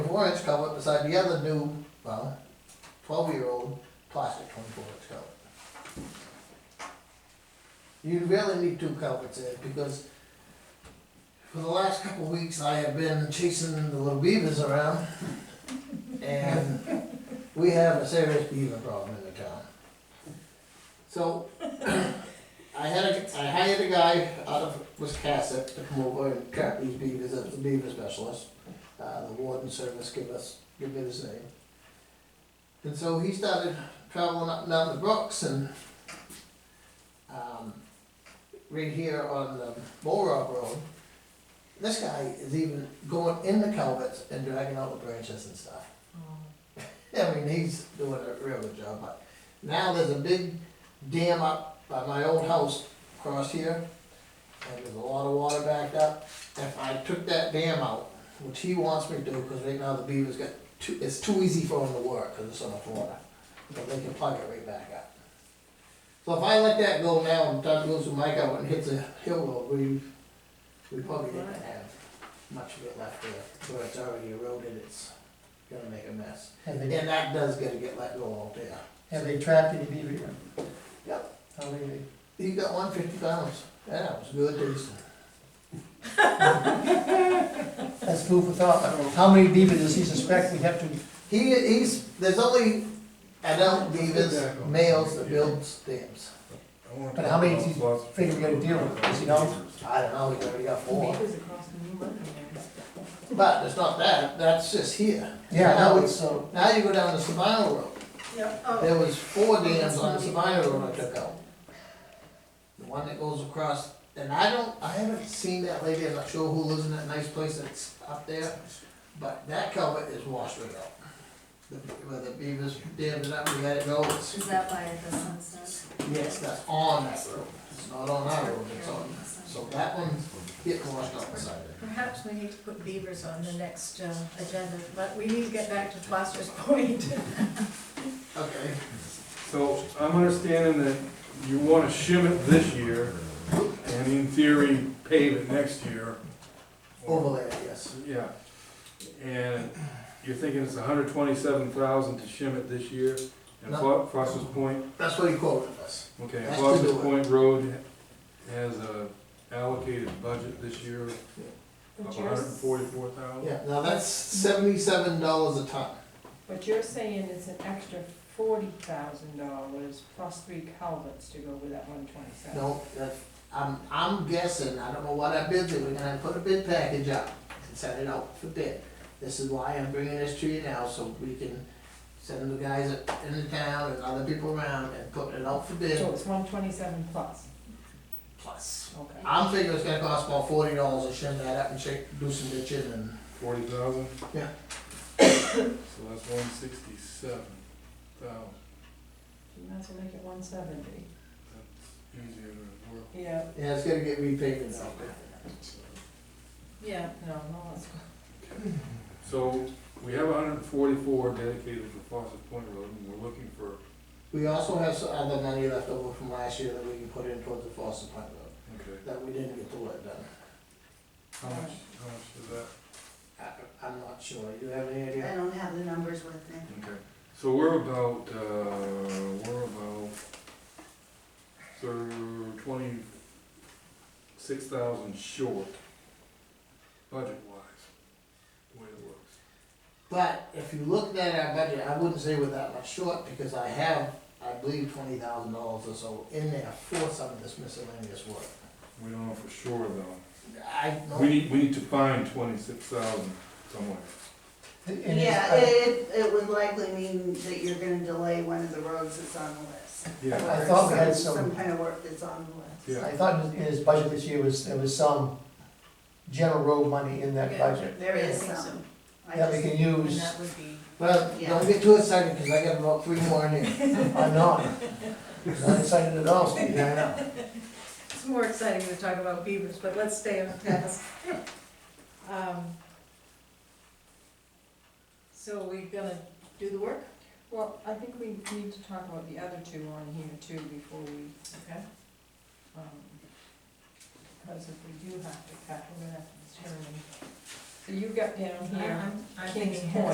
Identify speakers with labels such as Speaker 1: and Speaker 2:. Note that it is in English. Speaker 1: twenty-four inch culvert beside the other new, well, twelve-year-old plastic twenty-four inch culvert. You really need two culverts there, because for the last couple of weeks, I have been chasing the little beavers around, and we have a serious beaver problem in the town. So, I had a, I hired a guy out of Wiscasset to come over and trap these beavers, as a beaver specialist. Uh, the warden service give us, give me his name. And so he started traveling up and down the brooks and, um, right here on the Bull Rock Road, this guy is even going in the culverts and dragging out the branches and stuff. I mean, he's doing a real good job, but now there's a big dam up by my old house across here, and there's a lot of water backed up. If I took that dam out, which he wants me to do, because right now the beavers got too, it's too easy for them to work, because it's enough water, but they can plug it right back up. So if I let that go now, and Doug goes with Mike out and hits a hill road, we, we probably didn't have much of it left there, where it's already eroded, it's gonna make a mess.
Speaker 2: Have
Speaker 1: And
Speaker 2: they,
Speaker 1: that does gotta get let go out there.
Speaker 2: have they trapped any beaver yet?
Speaker 1: Yep.
Speaker 2: How many? they-
Speaker 1: You got one fifty pounds, that was good decent.
Speaker 2: That's food for thought. How many beaver does he suspect we have to,
Speaker 1: He, he's, there's only adult beavers, males that build dams.
Speaker 2: But how many do you think we're gonna deal with? Does he know?
Speaker 1: I don't know, we already got four,
Speaker 3: Beavers across the new road there.
Speaker 1: but it's not that, that's just here.
Speaker 2: yeah,
Speaker 1: Now it's-
Speaker 2: that was, so,
Speaker 1: Now you go down the Sabino Road,
Speaker 3: Yep,
Speaker 1: there
Speaker 3: oh,
Speaker 1: was four dams on the Sabino Road I took out. The one that goes across, and I don't, I haven't seen that lady, I'm not sure who lives in that nice place that's up there, but that culvert is washed right out. The- Where the beavers dammed it up, we had it go, it's-
Speaker 3: is that by the sunset?
Speaker 1: yes, that's on that road, it's not on our road, it's on, so that one gets washed out beside it.
Speaker 3: Perhaps we need to put beavers on the next uh, agenda, but we need to get back to Foster's Point.
Speaker 1: Okay,
Speaker 4: So I'm understanding that you wanna shim it this year and in theory pave it next year.
Speaker 1: overlay, it, yes,
Speaker 4: Yeah. And you're thinking it's hundred twenty-seven thousand to shim it this year? And Fo- Foster's Point,
Speaker 1: that's what he quoted us,
Speaker 4: okay,
Speaker 1: That's to
Speaker 4: Foster's
Speaker 1: do it.
Speaker 4: Point Road has a allocated budget this year of
Speaker 5: What you're,
Speaker 4: hundred and forty-four thousand?
Speaker 1: yeah, now that's seventy-seven dollars a ton,
Speaker 5: what you're saying is an extra forty thousand dollars plus three culverts to go with that one twenty-seven.
Speaker 1: no, that, I'm, I'm guessing, I don't know what I bid, that we're gonna put a bid package up and send it out for bid. This is why I'm bringing this to you now, so we can send the guys in the town and other people around and put it out for bid
Speaker 5: So it's one twenty-seven plus,
Speaker 1: plus.
Speaker 5: okay.
Speaker 1: I'm thinking it's gonna cost about forty dollars to shim that up and shake, do some ditching and
Speaker 4: Forty thousand?
Speaker 1: Yeah.
Speaker 4: So that's one sixty-seven thousand,
Speaker 5: You might as well make it one seventy.
Speaker 4: that's easier to work.
Speaker 5: Yeah,
Speaker 1: Yeah, it's gonna get repainted out there.
Speaker 5: yeah, no, no, that's
Speaker 4: So, we have hundred and forty-four dedicated for Foster Point Road, and we're looking for,
Speaker 1: We also have some other money left over from last year that we can put in towards the Foster Plant Road,
Speaker 4: okay,
Speaker 1: that we didn't get the work done.
Speaker 4: how much, how much is that?
Speaker 1: I, I'm not sure, you have any idea?
Speaker 3: don't have the numbers with me.
Speaker 4: Okay. So we're about, uh, we're about, so twenty-six thousand short, budget-wise, the way it looks.
Speaker 1: But if you looked at our budget, I wouldn't say we're that much short, because I have, I believe, twenty thousand dollars or so in there for some of this miscellaneous work.
Speaker 4: We don't know for sure though.
Speaker 1: I don't.
Speaker 4: We need, we need to find twenty-six thousand somewhere.
Speaker 2: and it's-
Speaker 6: Yeah, it, it would likely mean that you're gonna delay one of the roads that's on the list.
Speaker 4: Yeah,
Speaker 2: I thought we had
Speaker 6: Or
Speaker 2: some-
Speaker 6: Some kind of work that's on the list.
Speaker 4: yeah.
Speaker 2: I thought in his budget this year was, there was some general road money in that
Speaker 3: Yeah.
Speaker 2: budget
Speaker 6: There is
Speaker 3: Yeah, I think
Speaker 6: some. I
Speaker 2: that we
Speaker 6: just,
Speaker 2: can
Speaker 3: And
Speaker 2: use
Speaker 3: that would be,
Speaker 1: Well, don't get too excited, cause I got about three more in here.
Speaker 2: or not. Not excited at all, Steve.
Speaker 1: Yeah, I know.
Speaker 3: it's more exciting to talk about beavers, but let's stay on task. Um, So we gonna do the work?
Speaker 5: Well, I think we need to talk about the other two on here too before we,
Speaker 3: Okay.
Speaker 5: um, because if we do have to cut, we're gonna have to determine you got down here,
Speaker 3: I'm- I'm
Speaker 5: King's
Speaker 3: thinking
Speaker 5: Point.